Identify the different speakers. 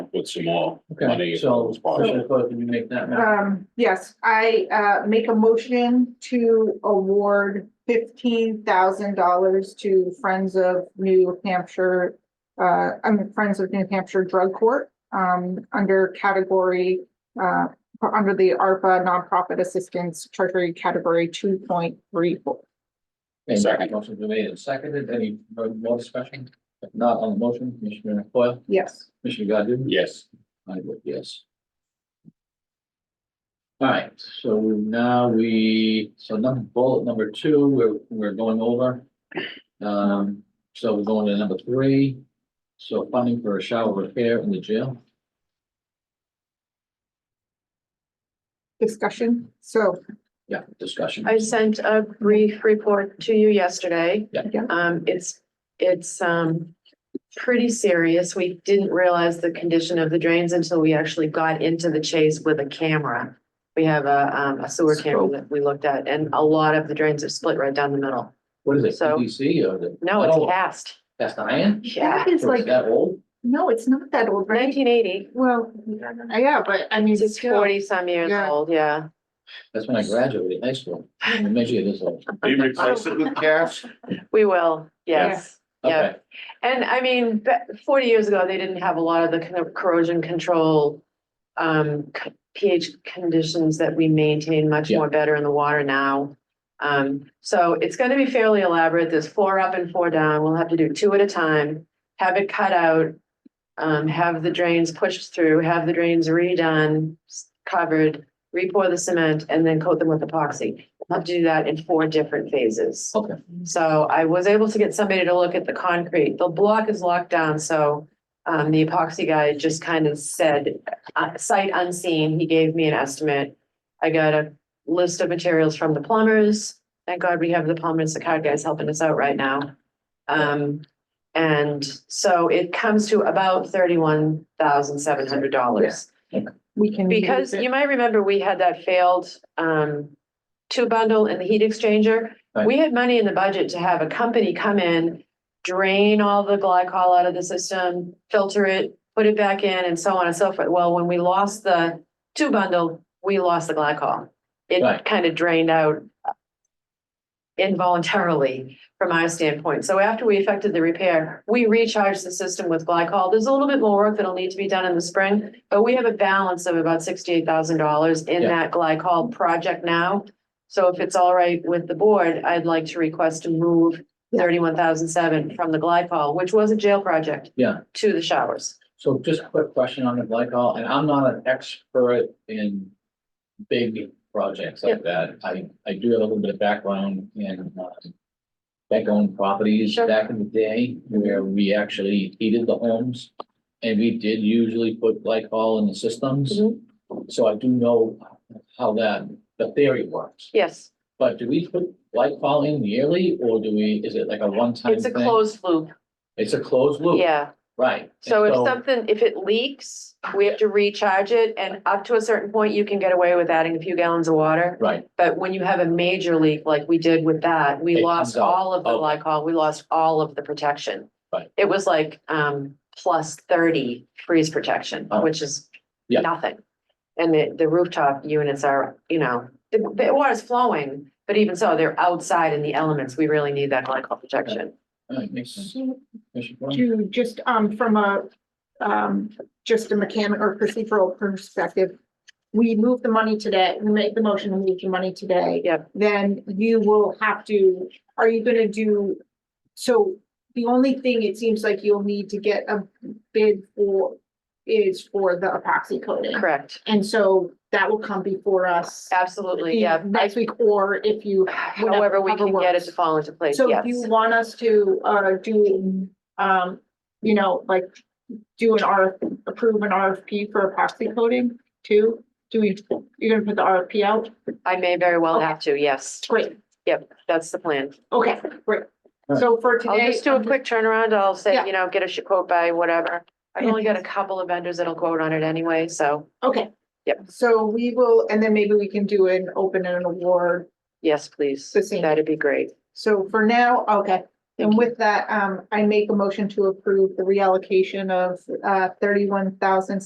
Speaker 1: with some more
Speaker 2: Okay,
Speaker 1: money.
Speaker 2: so,
Speaker 1: Sponsor.
Speaker 2: Commissioner Coyle, can you make that?
Speaker 3: Uh,
Speaker 2: motion?
Speaker 4: Um, yes, I, uh, make a motion to award fifteen thousand dollars to Friends of New Hampshire. Uh, I mean, Friends of New Hampshire Drug Court, um, under category, uh, under the ARPA nonprofit assistance treasury category two point three four.
Speaker 2: Okay,
Speaker 1: Second.
Speaker 2: Motion's been made and seconded. Any more discussion? If not on the motion, Commissioner Coyle,
Speaker 4: Yes.
Speaker 2: Commissioner Godu?
Speaker 1: Yes,
Speaker 2: I vote yes. All right, so now we, so number bullet number two, we're, we're going over. Um, so we're going to number three. So funding for a shower repair in the jail.
Speaker 4: Discussion, so,
Speaker 2: Yeah, discussion.
Speaker 3: I sent a brief report to you yesterday.
Speaker 2: Yeah.
Speaker 4: Yeah.
Speaker 3: Um, it's, it's, um, pretty serious. We didn't realize the condition of the drains until we actually got into the chase with a camera. We have a, um, a sewer camera that we looked at and a lot of the drains are split right down the middle.
Speaker 2: What is it,
Speaker 3: So-
Speaker 2: PVC or the?
Speaker 3: No, it's
Speaker 2: Oh,
Speaker 3: cast.
Speaker 2: That's the iron?
Speaker 3: Yeah,
Speaker 4: It's
Speaker 2: Or is
Speaker 4: like-
Speaker 2: That old?
Speaker 4: no, it's not that old, right?
Speaker 3: nineteen eighty.
Speaker 4: Well, yeah, but I mean,
Speaker 3: It's
Speaker 4: still,
Speaker 3: forty some years
Speaker 4: Yeah.
Speaker 3: old, yeah.
Speaker 2: That's when I graduated high school. I measured it this old.
Speaker 1: you replace it with cash?
Speaker 3: We will, yes. Yeah.
Speaker 2: Okay,
Speaker 3: And I mean, ba- forty years ago, they didn't have a lot of the kind of corrosion control. Um, c- pH conditions that we maintain much
Speaker 2: Yeah.
Speaker 3: more better in the water now. Um, so it's gonna be fairly elaborate. There's four up and four down. We'll have to do two at a time. Have it cut out. Um, have the drains pushed through, have the drains redone, s- covered, re-pour the cement and then coat them with epoxy. We'll have to do that in four different phases.
Speaker 2: okay.
Speaker 3: So I was able to get somebody to look at the concrete. The block is locked down, so um, the epoxy guy just kind of said, uh, sight unseen, he gave me an estimate. I got a list of materials from the plumbers. Thank God we have the plumbers, the card guy's helping us out right now. Um, and so it comes to about thirty-one thousand seven hundred dollars.
Speaker 4: we can. use
Speaker 3: Because
Speaker 4: it.
Speaker 3: you might remember we had that failed um two bundle and the heat exchanger.
Speaker 2: Right.
Speaker 3: We had money in the budget to have a company come in, drain all the glycol out of the system, filter it, put it back in and so on and so forth. Well, when we lost the two bundle, we lost the glycol.
Speaker 2: Right.
Speaker 3: It kind of drained out involuntarily from our standpoint. So after we effected the repair, we recharged the system with glycol. There's a little bit more work that'll need to be done in the spring, but we have a balance of about sixty-eight thousand dollars in
Speaker 2: Yeah.
Speaker 3: that glycol project now. So if it's all right with the board, I'd like to request to move
Speaker 4: Yeah.
Speaker 3: thirty-one thousand seven from the glycol, which was a jail project,
Speaker 2: Yeah,
Speaker 3: to the showers.
Speaker 2: so just a quick question on the glycol, and I'm not an expert in big projects like that. I, I do have a little bit of background in uh, back owned properties
Speaker 3: Sure.
Speaker 2: back in the day where we actually heated the homes. And we did usually put glycol in the systems,
Speaker 3: Mhm.
Speaker 2: so I do know how that, the theory works.
Speaker 3: Yes,
Speaker 2: But do we put glycol in yearly, or do we, is it like a one-time
Speaker 3: it's a
Speaker 2: thing?
Speaker 3: closed loop,
Speaker 2: It's a closed loop?
Speaker 3: yeah.
Speaker 2: Right. And
Speaker 3: So if something, if it leaks, we have to recharge it and up to a certain point, you can get away with adding a few gallons of water.
Speaker 2: Right,
Speaker 3: But when you have a major leak like we did with that,
Speaker 2: It
Speaker 3: we
Speaker 2: comes
Speaker 3: lost
Speaker 2: out.
Speaker 3: all of the
Speaker 2: Okay.
Speaker 3: glycol, we lost all of the protection.
Speaker 2: Right.
Speaker 3: It was like um plus thirty freeze protection,
Speaker 2: Oh.
Speaker 3: which is
Speaker 2: Yeah.
Speaker 3: nothing. And the the rooftop units are, you know, the the water's flowing, but even so, they're outside in the elements. We really need that glycol protection.
Speaker 2: All right, makes sense.
Speaker 4: So
Speaker 2: Commissioner Coyle?
Speaker 4: to just, um, from a, um, just a mechanic or procedural perspective. We move the money today, we make the motion to move the money today.
Speaker 3: Yep.
Speaker 4: Then you will have to, are you gonna do, so the only thing it seems like you'll need to get a bid for is for the epoxy coating.
Speaker 3: Correct,
Speaker 4: And so that will come before us.
Speaker 3: absolutely, yeah.
Speaker 4: in Next week, or if you
Speaker 3: However, we
Speaker 4: Whatever
Speaker 3: can get it
Speaker 4: works.
Speaker 3: to fall into place,
Speaker 4: So
Speaker 3: yes.
Speaker 4: if you want us to, uh, do, um, you know, like, do an R, approve an RFP for epoxy coating too? Do we, you're gonna put the RFP out?
Speaker 3: I may very well
Speaker 4: Okay.
Speaker 3: have to, yes.
Speaker 4: Great,
Speaker 3: That's the plan.
Speaker 4: okay, great. So for
Speaker 3: I'll
Speaker 4: today. um,
Speaker 3: just do a quick turnaround. I'll
Speaker 4: Yeah.
Speaker 3: say, you know, get a sh- quote by whatever. I've only got a couple of vendors that'll quote on it anyway, so
Speaker 4: Okay.
Speaker 3: Yep.
Speaker 4: So we will, and then maybe we can do an open and an award.
Speaker 3: yes, please.
Speaker 4: The same.
Speaker 3: That'd be great.
Speaker 4: So for now, okay.
Speaker 3: Thank
Speaker 4: And
Speaker 3: you.
Speaker 4: with that, um, I make a motion to approve the reallocation of, uh, thirty-one thousand